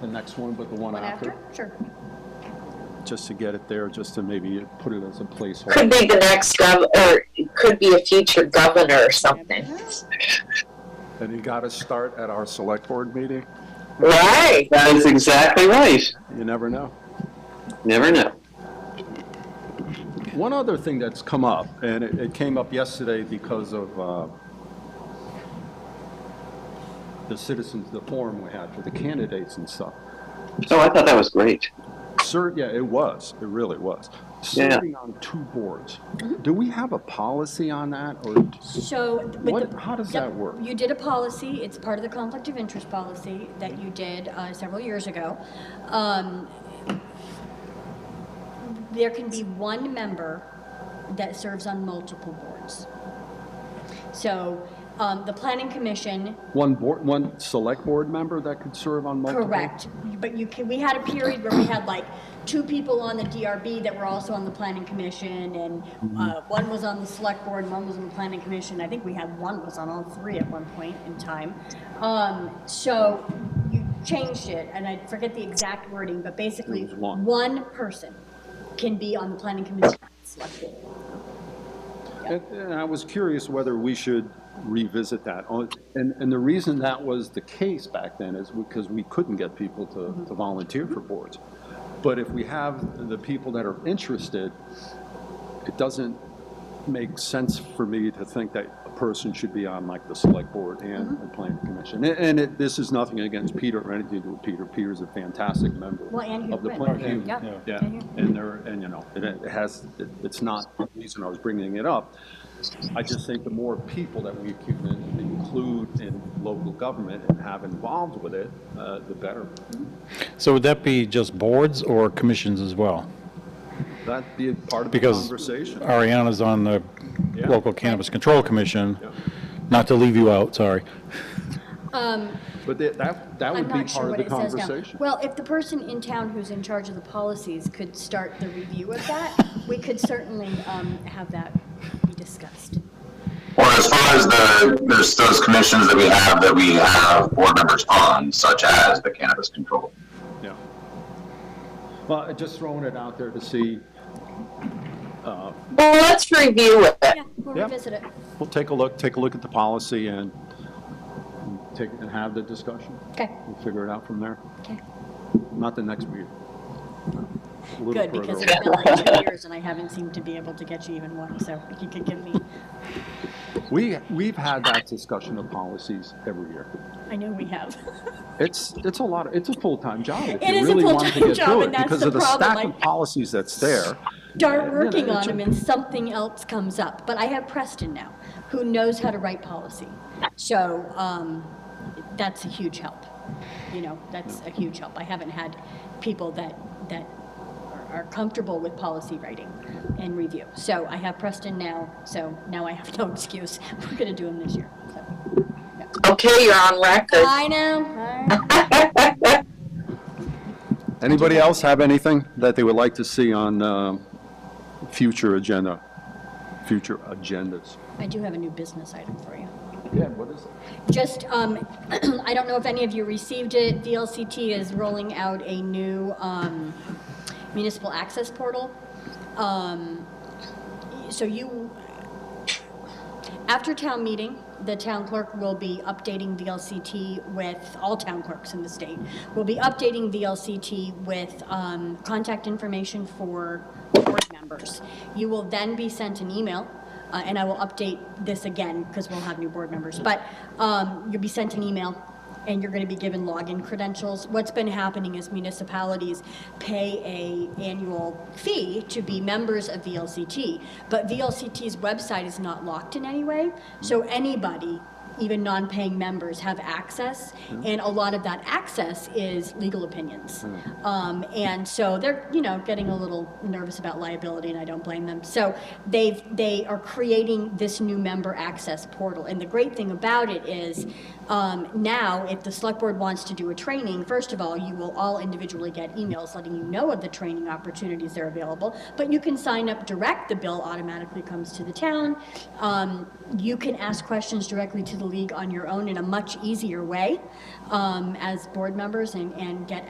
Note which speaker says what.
Speaker 1: the next one, but the one
Speaker 2: One
Speaker 1: after,
Speaker 2: after? Sure.
Speaker 1: just to get it there, just to maybe put it as a placeholder.
Speaker 3: Could be the next gov, or it could be a future governor or something.
Speaker 1: And you got to start at our select board meeting.
Speaker 3: Right.
Speaker 4: That is exactly right.
Speaker 1: You never know.
Speaker 4: Never know.
Speaker 1: One other thing that's come up, and it, it came up yesterday because of, uh, the citizens, the forum we had for the candidates and stuff.
Speaker 4: So Oh, I thought that was great.
Speaker 1: Ser, yeah, it was, it really was.
Speaker 4: Yeah.
Speaker 1: Serving on two boards. Do we have a policy on that, or
Speaker 2: So. with
Speaker 1: What-
Speaker 2: the-
Speaker 1: how does
Speaker 2: yep,
Speaker 1: that work?
Speaker 2: You did a policy, it's part of the conflict of interest policy that you did uh, several years ago. Um, There can be one member that serves on multiple boards. So um, the planning commission
Speaker 1: one board, one select board member that could serve on multiple?
Speaker 2: Correct, but you can, we had a period where we had like two people on the DRB that were also on the planning commission, and uh,
Speaker 1: Mm-hmm.
Speaker 2: one was on the select board, and one was on the planning commission, I think we had one was on all three at one point in time. Um, So you changed it, and I forget the exact wording, but basically,
Speaker 1: It was one.
Speaker 2: one person can be on the planning commission. and select board.
Speaker 1: And and I was curious whether we should revisit that. Oh, And, and the reason that was the case back then is because we couldn't get people to, to volunteer for boards. But if we have the people that are interested, it doesn't make sense for me to think that a person should be on like the select board and
Speaker 2: Mm-hmm.
Speaker 1: the planning commission. And- And it, this is nothing against Peter or anything to do with Peter. Peter's a fantastic member
Speaker 2: Well, and
Speaker 1: of the
Speaker 2: Hubrin.
Speaker 1: planning. commission. Yeah,
Speaker 2: Yeah. Mhm.
Speaker 1: and there, and you know, it it has, it- it's not the reason I was bringing it up. I just think the more people that we can include in local government and have involved with it, uh, the better.
Speaker 5: So would that be just boards or commissions as well?
Speaker 1: That'd be part of the
Speaker 5: Because
Speaker 1: conversation.
Speaker 5: Ariana's on the
Speaker 1: Yeah.
Speaker 5: local cannabis control commission,
Speaker 1: Yeah.
Speaker 5: not to leave you out, sorry.
Speaker 1: But that- that, that
Speaker 2: I'm
Speaker 1: would be
Speaker 2: not sure
Speaker 1: part of
Speaker 2: what
Speaker 1: the
Speaker 2: it says now.
Speaker 1: conversation.
Speaker 2: Well, if the person in town who's in charge of the policies could start the review of that, we could certainly um, have that be discussed.
Speaker 6: Or as far as the, there's those commissions that we have, that we have board members on, such as the cannabis control.
Speaker 1: Yeah. Well, I just throwing it out there to see,
Speaker 3: Well, let's review it.
Speaker 2: Yeah, we'll
Speaker 1: Yeah.
Speaker 2: revisit it.
Speaker 1: we'll take a look, take a look at the policy and take, and have the discussion.
Speaker 2: Okay,
Speaker 1: We'll figure it out from there.
Speaker 2: Okay.
Speaker 1: Not the next meeting. A little
Speaker 2: good,
Speaker 1: further
Speaker 2: because
Speaker 1: away.
Speaker 2: it's been like two years and I haven't seemed to be able to get you even one, so if you could give me,
Speaker 1: We, we've had that discussion of policies every year.
Speaker 2: I know we have.
Speaker 1: It's, it's a lot, of- it's a full-time job if
Speaker 2: It
Speaker 1: you
Speaker 2: is a
Speaker 1: really wanted to
Speaker 2: full-time
Speaker 1: get
Speaker 2: job,
Speaker 1: through it.
Speaker 2: and that's
Speaker 1: Because
Speaker 2: the
Speaker 1: of the stack
Speaker 2: problem,
Speaker 1: of
Speaker 2: like-
Speaker 1: policies that's there.
Speaker 2: Start working
Speaker 1: it's
Speaker 2: on
Speaker 1: a-
Speaker 2: them and something else comes up, but I have Preston now, who knows how to write policy. So um, that's a huge help. You know, that's a huge help. I haven't had people that, that are- are comfortable with policy writing and review. So I have Preston now, so now I have no excuse. We're going to do them this year. so.
Speaker 3: Okay, you're on record.
Speaker 2: I know.
Speaker 1: Anybody else have anything that they would like to see on um, future agenda, future agendas?
Speaker 2: I do have a new business item for you.
Speaker 1: Yeah, what is it?
Speaker 2: Just, um, I don't know if any of you received it, VLCT is rolling out a new, um, municipal access portal. Um, so you, after town meeting, the town clerk will be updating VLCT with, all town clerks in the state, will be updating VLCT with um, contact information for board members. You will then be sent an email, uh, and I will update this again because we'll have new board members, but um, you'll be sent an email and you're going to be given login credentials. What's been happening is municipalities pay a annual fee to be members of VLCT, but VLCT's website is not locked in any way, so anybody, even non-paying members, have access, and a lot of that access is legal opinions. Um, and so they're, you know, getting a little nervous about liability, and I don't blame them. So they've, they are creating this new member access portal, and the great thing about it is, um, now, if the select board wants to do a training, first of all, you will all individually get emails letting you know of the training opportunities that are available, but you can sign up direct, the bill automatically comes to the town. Um, you can ask questions directly to the league on your own in a much easier way, um, as board members and, and get